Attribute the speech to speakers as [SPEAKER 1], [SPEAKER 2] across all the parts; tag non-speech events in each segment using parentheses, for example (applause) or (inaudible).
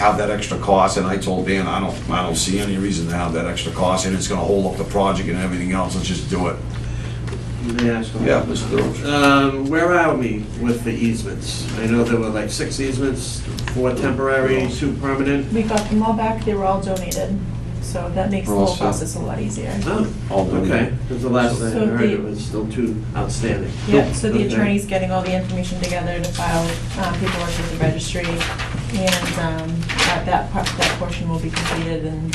[SPEAKER 1] have that extra cost, and I told Dan, I don't, I don't see any reason to have that extra cost, and it's gonna hold up the project and everything else, let's just do it.
[SPEAKER 2] Yeah, so-
[SPEAKER 1] Yeah, let's do it.
[SPEAKER 2] Um, where are we with the easements? I know there were like six easements, four temporary, two permanent.
[SPEAKER 3] We got them all back, they were all donated, so that makes the
[SPEAKER 1] We're all
[SPEAKER 3] whole
[SPEAKER 1] set.
[SPEAKER 3] process a lot easier.
[SPEAKER 2] Oh,
[SPEAKER 1] All done.
[SPEAKER 2] okay, because the last I
[SPEAKER 3] So
[SPEAKER 2] heard it
[SPEAKER 3] the-
[SPEAKER 2] was still two outstanding.
[SPEAKER 3] Yeah, so the
[SPEAKER 2] Okay.
[SPEAKER 3] attorney's getting all the information together to file uh, paperwork with the registry, and um, that, that part, that portion will be completed, and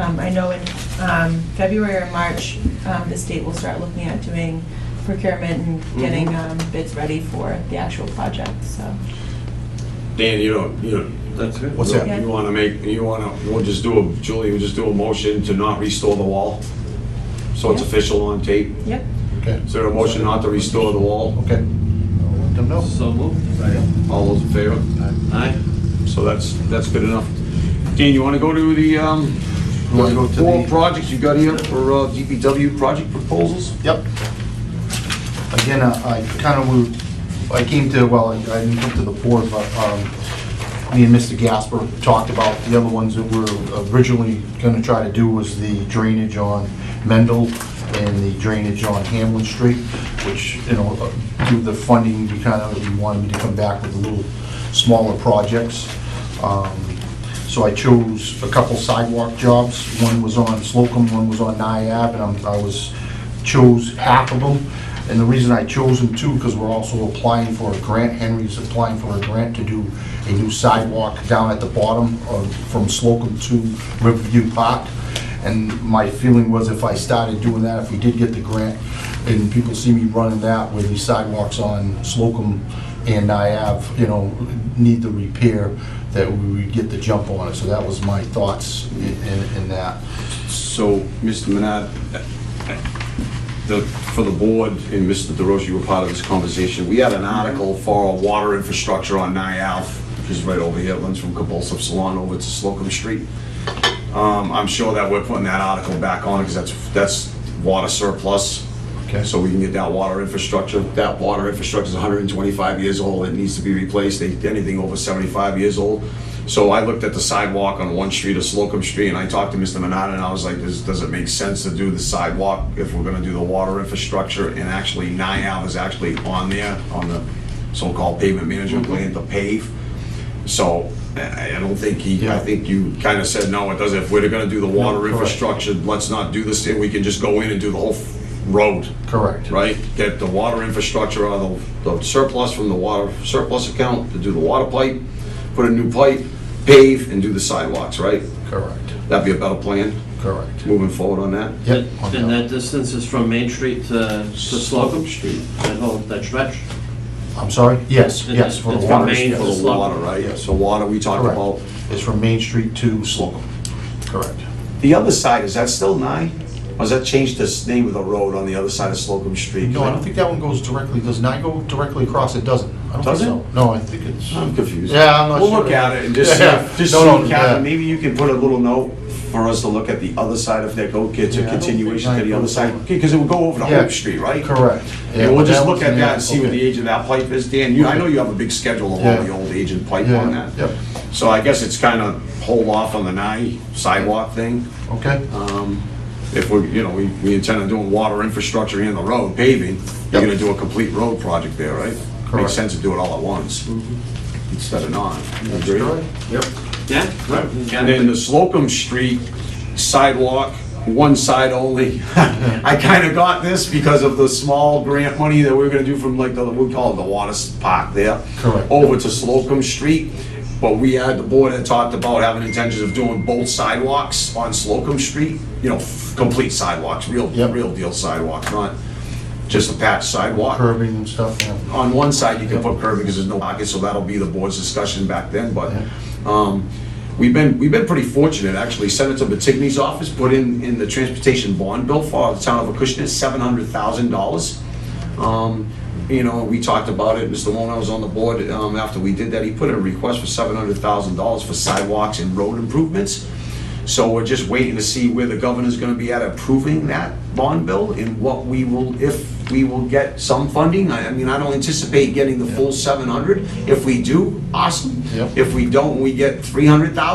[SPEAKER 3] um, I know in um, February or March, um, the state will start looking at doing procurement and getting
[SPEAKER 2] Mhm.
[SPEAKER 3] um, bids ready for the actual project, so.
[SPEAKER 1] Dan, you don't, you don't,
[SPEAKER 2] That's good.
[SPEAKER 1] what's that,
[SPEAKER 3] Yeah.
[SPEAKER 1] you wanna make, you wanna, we'll just do a, Julie, we'll just do a motion to not restore the wall? So it's
[SPEAKER 3] Yeah.
[SPEAKER 1] official on tape,
[SPEAKER 3] Yep,
[SPEAKER 4] Okay,
[SPEAKER 1] is there a motion not to restore the wall?
[SPEAKER 4] okay. I'll Let them know.
[SPEAKER 2] So moved.
[SPEAKER 1] All those in favor?
[SPEAKER 2] Aye.
[SPEAKER 1] So that's, that's good enough. Dan, you want to go to the, um,
[SPEAKER 4] You wanna go to
[SPEAKER 1] four
[SPEAKER 4] the-
[SPEAKER 1] projects you got here for uh, DPW project proposals?
[SPEAKER 4] Yep. Again, uh, I kind of, moved- I came to, well, I I didn't come to the board, but um, me and Mr. Gasper talked about the other ones that we're originally going to try to do was the drainage on Mendel and the drainage on Hamlin Street, which, you know, uh, through the funding, we kind of, we wanted me to come back with a little smaller projects. Um, So I chose a couple sidewalk jobs. One was on Slocum, one was on Niab, and I'm- I was, chose half of them. And the reason I chose them too, because we're also applying for a grant, Henry's applying for a grant to do a new sidewalk down at the bottom of, from Slocum to Riverview Park. And my feeling was if I started doing that, if we did get the grant, and people see me running that with these sidewalks on Slocum and I have, you know, need the repair, that we would get the jump on it. So that was my thoughts in, in- in that.
[SPEAKER 1] So, Mr. Manat, the, for the board and Mr. DeRoche, you were part of this conversation. We had an article for our water infrastructure on Nialf, which is right over here, It runs from Convulsive Salon over to Slocum Street. Um, I'm sure that we're putting that article back on because that's, that's water surplus.
[SPEAKER 4] Okay.
[SPEAKER 1] So we can get that water infrastructure. That water infrastructure is 125 years old. It needs to be replaced. They- Anything over 75 years old. So I looked at the sidewalk on one street of Slocum Street and I talked to Mr. Manada and I was like, does, does it make sense to do the sidewalk if we're gonna do the water infrastructure? And actually, NIAF is actually on there, on the so-called pavement management plan to pave. So I I don't think he, I
[SPEAKER 4] Yeah.
[SPEAKER 1] think you kind of said, no, it doesn't. If we're gonna do the water
[SPEAKER 4] correct.
[SPEAKER 1] infrastructure, let's not do this, and we can just go in and do the whole f- road,
[SPEAKER 4] Correct.
[SPEAKER 1] right? Get the water infrastructure out of the the surplus from the water surplus account to do the water pipe, put a new pipe, pave, and do the sidewalks, right?
[SPEAKER 4] Correct,
[SPEAKER 1] That'd be a better plan,
[SPEAKER 4] correct.
[SPEAKER 1] moving forward on that.
[SPEAKER 4] Yep.
[SPEAKER 2] And that distance is from Main Street to to Slocum Street, that whole, that stretch?
[SPEAKER 4] I'm sorry? Yes,
[SPEAKER 2] It-
[SPEAKER 4] yes, for
[SPEAKER 2] it's
[SPEAKER 4] the
[SPEAKER 2] from
[SPEAKER 4] water.
[SPEAKER 2] Main
[SPEAKER 1] For
[SPEAKER 4] yes.
[SPEAKER 1] the water, right? So water, we talked
[SPEAKER 4] Correct.
[SPEAKER 1] about.
[SPEAKER 4] It's from Main Street to Slocum. Correct.
[SPEAKER 1] The other side, is that still nine? Or has that changed the name of the road on the other side of Slocum Street?
[SPEAKER 4] No, I don't think that one goes directly, does not go directly across, it doesn't. I don't think
[SPEAKER 1] Does it?
[SPEAKER 4] so. No, I think it's,
[SPEAKER 1] I'm confused.
[SPEAKER 4] Yeah, I'm not
[SPEAKER 1] We'll look
[SPEAKER 4] sure.
[SPEAKER 1] at it and just see,
[SPEAKER 4] Yeah.
[SPEAKER 1] just
[SPEAKER 4] No, no,
[SPEAKER 1] see, Captain,
[SPEAKER 4] yeah.
[SPEAKER 1] maybe you can put a little note for us to look at the other side of that go It's
[SPEAKER 4] Yeah, I
[SPEAKER 1] a
[SPEAKER 4] don't think
[SPEAKER 1] continuation to
[SPEAKER 4] nine
[SPEAKER 1] the other
[SPEAKER 4] goes
[SPEAKER 1] side,
[SPEAKER 4] over.
[SPEAKER 1] because it would go over to
[SPEAKER 4] Yeah.
[SPEAKER 1] Hope Street, right?
[SPEAKER 4] correct. Yeah,
[SPEAKER 1] And we'll
[SPEAKER 4] but
[SPEAKER 1] just look
[SPEAKER 4] one's
[SPEAKER 1] at
[SPEAKER 4] in
[SPEAKER 1] that and see what the
[SPEAKER 4] okay.
[SPEAKER 1] age of that pipe is, Dan, you, I
[SPEAKER 4] Okay.
[SPEAKER 1] know you have a big schedule of all
[SPEAKER 4] Yeah.
[SPEAKER 1] the old agent pipe
[SPEAKER 4] Yeah,
[SPEAKER 1] on that.
[SPEAKER 4] yep.
[SPEAKER 1] So I guess it's kind of hold off on the nine sidewalk thing.
[SPEAKER 4] Okay,
[SPEAKER 1] Um, If we, you know, we we intend on doing water infrastructure and the road paving, you're
[SPEAKER 4] Yep.
[SPEAKER 1] gonna do a complete road project there, right?
[SPEAKER 4] Correct. Mm-hmm.
[SPEAKER 1] Makes sense to do it all at once, instead of not.
[SPEAKER 4] that's
[SPEAKER 1] Agree?
[SPEAKER 4] correct. Yep.
[SPEAKER 2] Yeah? Right.
[SPEAKER 1] And then the Slocum Street sidewalk, one side only. (laughs) I kind of got this because of the small grant money that we we're gonna do from like the, we call it the water s- park there.
[SPEAKER 4] Correct.
[SPEAKER 1] Over to Slocum Street, but we had, the board had talked about having intentions of doing both sidewalks on Slocum Street. You know, f- complete sidewalks, real,
[SPEAKER 4] Yep.
[SPEAKER 1] real deal sidewalks, not just a patch sidewalk
[SPEAKER 4] Curbing and stuff, yeah.
[SPEAKER 1] on one side, you can put curbing because there's no pocket, so that'll be the board's discussion back then, but, um, we've been, we've been pretty fortunate, actually. Senator Batigny's office put in, in the transportation bond bill for the town of Acushnet, seven hundred thousand dollars. Um, you know, we talked about it, Mr. Wona was on the board, um, after we did that, he put in a request for seven hundred thousand dollars for sidewalks and road improvements. So we're just waiting to see where the governor's gonna be at approving that bond bill and what we will, if we will get some funding. I, I mean, I don't anticipate getting the full seven hundred. If we do, awesome.
[SPEAKER 4] Yep.
[SPEAKER 1] If we don't, we get three hundred thousand,